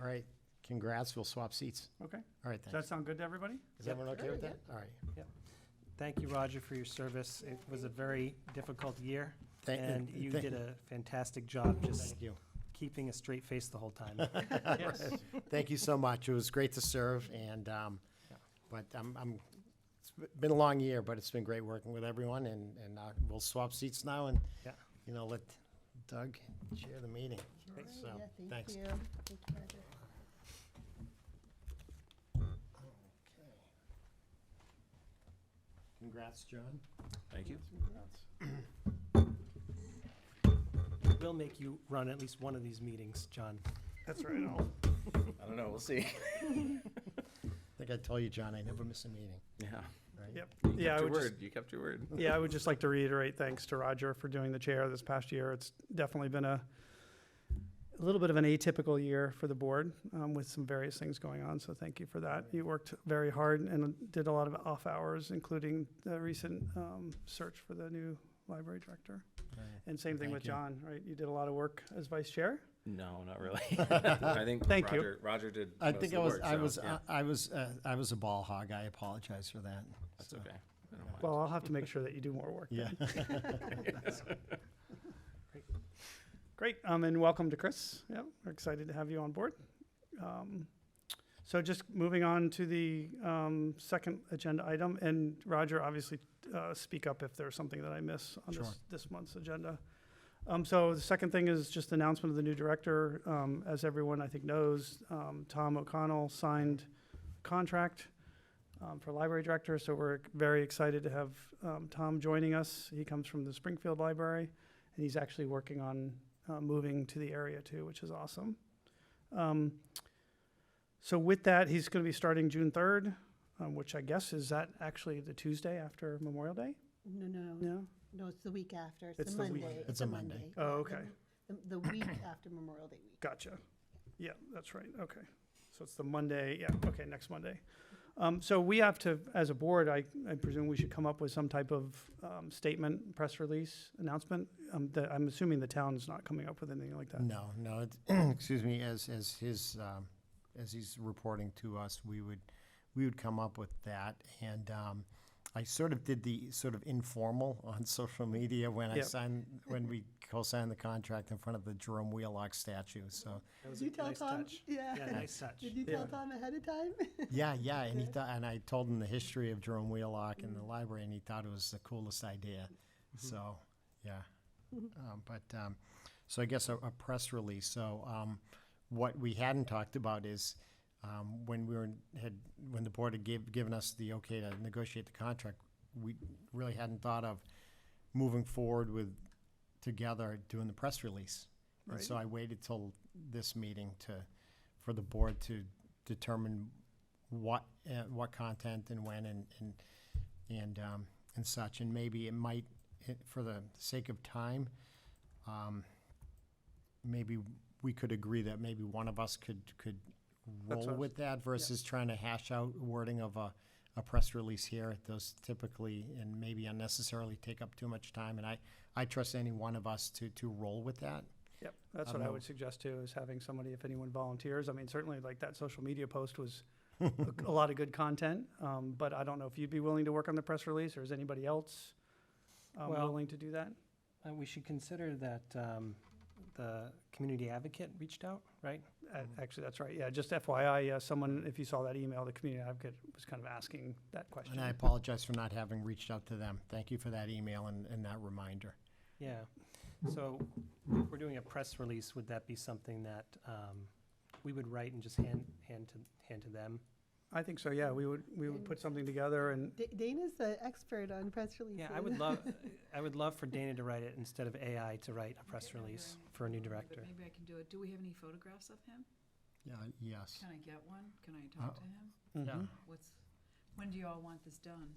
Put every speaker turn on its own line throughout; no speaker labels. All right, congrats, we'll swap seats.
Okay.
All right,
Does that
thanks.
sound good to everybody?
Is everyone okay with that? All right.
Thank you, Roger, for your service. It was a very difficult year,
Thank-
and you
thank-
did a fantastic job just
Thank you.
keeping a straight face the whole time.
Yes.
Thank you so much. It was great to serve and, um, but I'm, I'm, it's been a long year, but it's been great working with everyone and, and uh, we'll swap seats now and,
Yeah.
you know, let Doug chair the meeting. So,
Yeah,
thanks.
Thank you. Thank you, Roger.
Congrats, John.
Thank you.
We'll make you run at least one of these meetings, John.
That's right. I'll-
I don't know, we'll see.
I think I told you, John, I never miss a meeting,
Yeah.
right?
Yep.
You
Yeah, I
kept your
would just,
word, you kept your word.
yeah, I would just like to reiterate thanks to Roger for doing the chair this past year. It's definitely been a, a little bit of an atypical year for the board um, with some various things going on. So thank you for that. You worked very hard and did a lot of off hours, including the recent um, search for the new library director.
Right.
And same thing with
Thank you.
John, right? You did a lot of work as vice chair.
No, not really. I think
Thank you.
Roger, Roger did
I
most of
think
the
I was,
work,
I
so,
was,
yeah,
uh, I was, uh, I was a ball hog. I apologize for that.
That's
So,
okay. I don't mind.
Well, I'll have to make sure that you do more work.
Yeah.
Great, um, and welcome to Chris. Yeah, we're excited to have you on board. Um, so just moving on to the um, second agenda item, and Roger, obviously, uh, speak up if there's something that I miss on
Sure.
this, this month's agenda. Um, so the second thing is just announcement of the new director. Um, as everyone I think knows, um, Tom O'Connell signed contract um, for library director, so we're very excited to have um, Tom joining us. He comes from the Springfield Library, and he's actually working on uh, moving to the area too, which is awesome. Um, so with that, he's going to be starting June third, um, which I guess is that actually the Tuesday after Memorial Day.
No, no,
No,
no, it's the week after.
It's
It's the
the week-
Monday.
It's a Monday.
Yeah,
Oh,
the-
okay.
the- The week after Memorial Day week.
Gotcha. Yeah, that's right. Okay. So it's the Monday, yeah, okay, next Monday. Um, so we have to, as a board, I, I presume we should come up with some type of, um, statement, press release, announcement. Um, that, I'm assuming the town's not coming up with anything like that.
No, no, it- excuse me, as, as his, um, as he's reporting to us, we would, we would come up with that. And um, I sort of did the sort of informal on social media when I
Yep.
signed, when we co-signed the contract in front of the Jerome Wheelock statue, so.
That was
Did you
a
tell
nice
Tom?
touch. Yeah,
Yeah.
nice touch.
Did you
Yeah.
tell Tom ahead of time?
Yeah, yeah, and he thought, and I told him the history of Jerome Wheelock and the library, and he thought it was the coolest idea. So, yeah. Um, But, um, so I guess a, a press release. So, um, what we hadn't talked about is, um, when we were, had, when the board had give, given us the okay to negotiate the contract, we really hadn't thought of moving forward with, together, doing the press release. And so I waited till this meeting to, for the board to determine what, uh, what content and when and, and, and, um, and such. And maybe it might, it- for the sake of time, um, maybe we could agree that maybe one of us could, could roll
That's what I was-
with that versus trying to hash out wording of a, a press release here. Those typically and maybe unnecessarily take up too much time. And I, I trust any one of us to, to roll with that.
Yep, that's
I
what
don't
I
know.
would suggest too, is having somebody, if anyone volunteers, I mean, certainly like that social media post was a- a lot of good content, um, but I don't know if you'd be willing to work on the press release, or is anybody else um,
Well-
willing to do that?
Uh, we should consider that um, the community advocate reached out, right?
A-
mm.
Actually, that's right, yeah, just FYI, uh, someone, if you saw that email, the community advocate was kind of asking that question.
And I apologize for not having reached out to them. Thank you for that email and, and that reminder.
Yeah. So if we're doing a press release, would that be something that um, we would write and just hand, hand to, hand to them?
I think so, yeah, we would, we would put something together and,
Da- Dana's the expert on press releases.
Yeah, I would love, I would love for Dana to write it instead of AI to write a press release for a new director.
Maybe I can do it. Do we have any photographs of him?
Yeah, yes.
Can I get one? Can I talk to him?
Mm-hmm.
Yeah.
What's, when do you all want this done?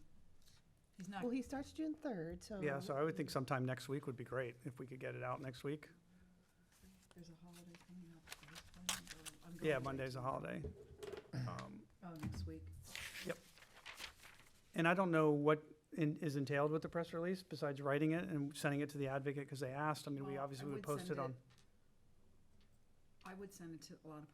He's not,
Well, he starts June third, so.
yeah, so I would think sometime next week would be great, if we could get it out next week.
there's a holiday coming up. so he's planning to go- I'm
Yeah,
going to
Monday's a holiday. Um,
Oh, next week.
And I don't know what in, is entailed with the press release besides writing it and sending it to the advocate because they asked. I mean, we
Well, I
obviously would
would
post
send
it
it-
on.
I would send it to a lot of